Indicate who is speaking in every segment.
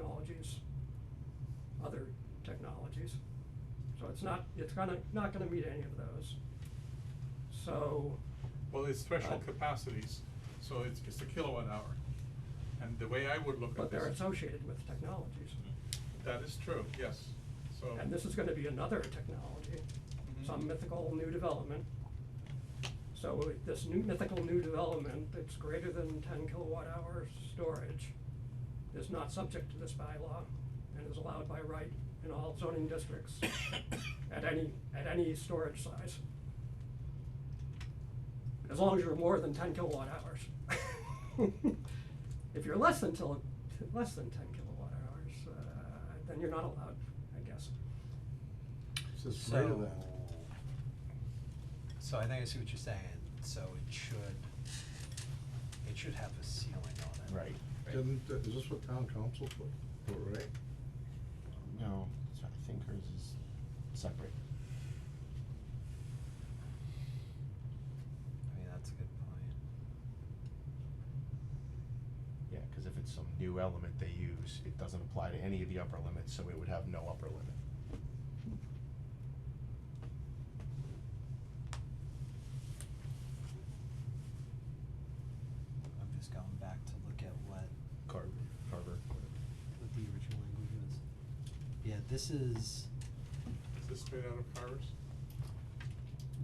Speaker 1: technologies, other technologies. So it's not, it's gonna, not gonna meet any of those. So,
Speaker 2: Well, it's threshold
Speaker 1: Uh,
Speaker 2: capacities, so it's, it's a kilowatt hour. And the way I would look at
Speaker 1: but they're
Speaker 2: this. Mm-hmm.
Speaker 1: associated with technologies.
Speaker 2: That is true, yes, so.
Speaker 1: And this is gonna be another technology, some
Speaker 2: Mhm.
Speaker 1: mythical new development. So this new mythical new development that's greater than ten kilowatt hour storage is not subject to this bylaw and is allowed by right in all zoning districts at any, at any storage size. As long as you're more than ten kilowatt hours. If you're less than till, less than ten kilowatt hours, uh, then you're not allowed, I guess.
Speaker 3: Says
Speaker 4: So-
Speaker 3: greater than.
Speaker 4: So I think I see what you're saying, so it should, it should have a ceiling on it.
Speaker 3: Didn't, uh, is this what town council put, put, right?
Speaker 5: No, so I think hers is separate.
Speaker 4: I mean, that's a good point.
Speaker 5: Yeah, cause if it's some new element they use, it doesn't apply to any of the upper limits, so it would have no upper limit.
Speaker 4: I'm just going back to look at what
Speaker 5: Carver, Carver, whatever.
Speaker 4: what the original language was. Yeah, this
Speaker 2: Is
Speaker 4: is,
Speaker 2: this straight out of Carver's?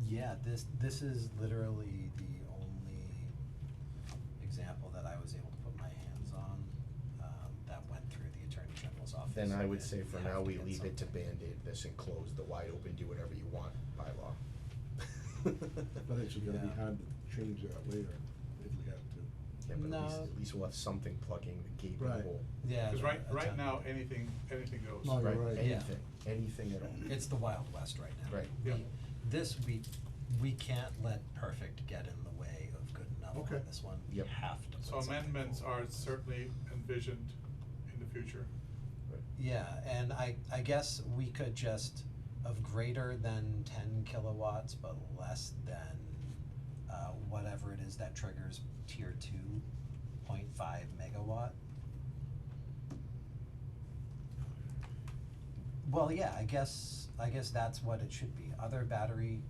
Speaker 4: yeah, this, this is literally the only example that I was able to put my hands on, um, that went through the Attorney General's office.
Speaker 5: Then I would
Speaker 4: and
Speaker 5: say for
Speaker 4: have
Speaker 5: now,
Speaker 4: to
Speaker 5: we
Speaker 4: get
Speaker 5: leave it to
Speaker 4: something.
Speaker 5: Band-Aid this and close the wide open, do whatever you want bylaw.
Speaker 3: But it's gonna be
Speaker 4: Yeah.
Speaker 3: hard to change that later, if we have to.
Speaker 5: Yeah, but at least,
Speaker 4: No.
Speaker 5: at least we'll have something plugging the gaping
Speaker 3: Right.
Speaker 5: hole.
Speaker 4: Yeah.
Speaker 2: Cause
Speaker 4: the
Speaker 2: right, right
Speaker 4: attempt-
Speaker 2: now, anything, anything goes.
Speaker 3: No, Oh, you're right.
Speaker 4: Yeah.
Speaker 5: Anything, anything at all.
Speaker 4: It's the Wild West right now.
Speaker 5: Right.
Speaker 4: We-
Speaker 2: Yeah.
Speaker 4: This, we, we can't let perfect get in the way of good enough on
Speaker 3: Okay.
Speaker 4: this one. We
Speaker 5: Yep.
Speaker 4: have to put
Speaker 2: So
Speaker 4: something
Speaker 2: amendments
Speaker 4: forward
Speaker 2: are
Speaker 4: on this.
Speaker 2: certainly envisioned in the future.
Speaker 5: Right.
Speaker 4: Yeah, and I, I guess we could just, of greater than ten kilowatts, but less than, uh, whatever it is that triggers tier two point five megawatt. Well, yeah, I guess, I guess that's what it should be, other battery.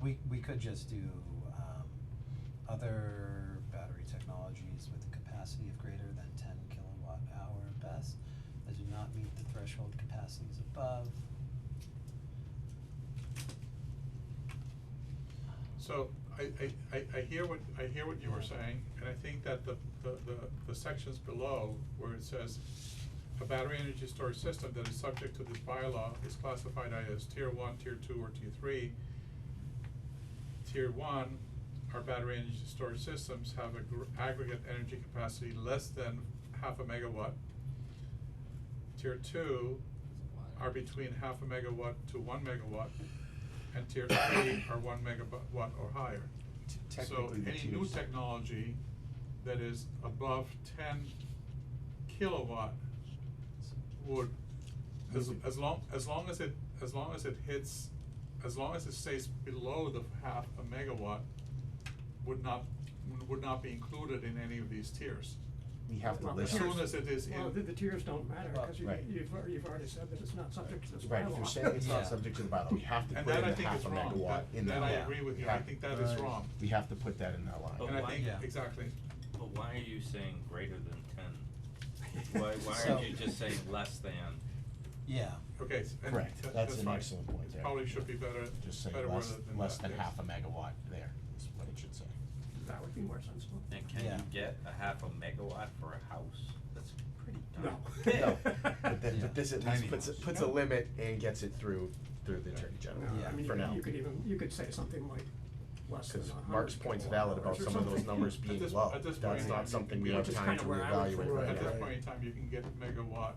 Speaker 4: We, we could just do, um, other battery technologies with a capacity of greater than ten kilowatt hour best that do not meet the threshold capacities above.
Speaker 2: So I, I, I, I hear what, I hear what you were
Speaker 4: Yeah.
Speaker 2: saying, and I think that the, the, the, the sections below where it says a battery energy storage system that is subject to this bylaw is classified either as tier one, tier two, or tier three. Tier one, our battery energy storage systems have a gr- aggregate energy capacity less than half a megawatt. Tier two are between half a megawatt to one megawatt, and tier three are one megawatt or higher. So
Speaker 5: T- Technically, the
Speaker 2: any new
Speaker 5: tiers-
Speaker 2: technology that is above ten kilowatt would, as,
Speaker 3: Maybe.
Speaker 2: as long, as long as it, as long as it hits, as long as it stays below the half a megawatt, would not, would not be included in any of these tiers.
Speaker 5: We have to
Speaker 1: Well, the
Speaker 5: list.
Speaker 2: As soon
Speaker 1: tiers-
Speaker 2: as it is
Speaker 1: Well,
Speaker 2: in-
Speaker 1: the, the tiers don't matter,
Speaker 4: Well,
Speaker 1: cause you,
Speaker 5: right.
Speaker 1: you've, al- you've already said that it's not subject to this bylaw.
Speaker 5: Right, if you're saying it's not
Speaker 4: Yeah.
Speaker 5: subject to the bylaw, we have to
Speaker 2: And
Speaker 5: put in
Speaker 2: that I
Speaker 5: the
Speaker 2: think
Speaker 5: half
Speaker 2: is
Speaker 5: a
Speaker 2: wrong,
Speaker 5: megawatt
Speaker 2: that,
Speaker 5: in that
Speaker 2: that I
Speaker 5: line.
Speaker 2: agree with
Speaker 5: We
Speaker 2: you, I
Speaker 5: have-
Speaker 2: think that is
Speaker 3: Right.
Speaker 2: wrong.
Speaker 5: We have to put that in that line.
Speaker 6: But
Speaker 2: And I
Speaker 6: why-
Speaker 2: think,
Speaker 4: Yeah.
Speaker 2: exactly,
Speaker 6: But why are you saying greater than ten? Why, why
Speaker 4: So-
Speaker 6: aren't you just saying less than?
Speaker 4: Yeah,
Speaker 2: okay, s- and
Speaker 5: Correct,
Speaker 2: that-
Speaker 5: that's
Speaker 2: that's
Speaker 5: an
Speaker 2: right.
Speaker 5: excellent point
Speaker 2: It
Speaker 5: there.
Speaker 2: probably should be better,
Speaker 5: Just say
Speaker 2: better
Speaker 5: less,
Speaker 2: worded than
Speaker 5: less
Speaker 2: that,
Speaker 5: than
Speaker 2: yes.
Speaker 5: half a megawatt there is what it should say.
Speaker 1: That would be more sensible.
Speaker 6: And can
Speaker 4: Yeah.
Speaker 6: you get a half a megawatt for a house? That's pretty darn
Speaker 1: No.
Speaker 6: big.
Speaker 5: No, but
Speaker 4: that-
Speaker 5: th-
Speaker 4: Yeah.
Speaker 5: but this at
Speaker 4: Tiny
Speaker 5: least puts, a-
Speaker 4: ones.
Speaker 5: puts a limit and gets it through, through the Attorney General,
Speaker 1: No,
Speaker 4: Yeah.
Speaker 1: Uh, I mean, you
Speaker 5: for
Speaker 1: could,
Speaker 5: now.
Speaker 1: you could even, you could say something like less than
Speaker 5: Cause
Speaker 1: a hundred
Speaker 5: Mark's point's valid about
Speaker 1: kilowatt hours or
Speaker 5: some of those
Speaker 1: something.
Speaker 5: numbers being
Speaker 2: this-
Speaker 5: low,
Speaker 2: at this
Speaker 5: that's
Speaker 2: point, I mean,
Speaker 5: not something we
Speaker 2: we
Speaker 5: have
Speaker 1: just
Speaker 5: time
Speaker 1: kinda
Speaker 5: to
Speaker 1: where I would put
Speaker 5: evaluate
Speaker 1: it
Speaker 5: right
Speaker 2: At this
Speaker 5: now.
Speaker 2: point in time, you can get megawatt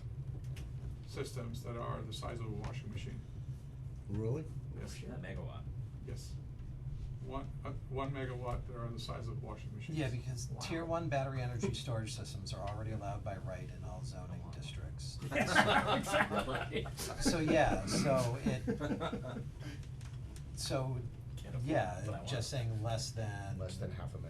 Speaker 2: systems that are the size of a washing machine.
Speaker 3: Really?
Speaker 2: Yes,
Speaker 1: shit.
Speaker 6: Megawatt.
Speaker 2: yes. One, uh, one megawatt that are the size of washing machines.
Speaker 4: yeah, because tier
Speaker 1: Wow.
Speaker 4: one battery energy storage systems are already allowed by right in all zoning districts.
Speaker 1: Yeah, exactly.
Speaker 4: So, yeah, so it- So,
Speaker 6: Can't afford
Speaker 4: yeah,
Speaker 6: it, but I want
Speaker 4: just
Speaker 6: it.
Speaker 4: saying less than.
Speaker 5: Less than half a megawatt.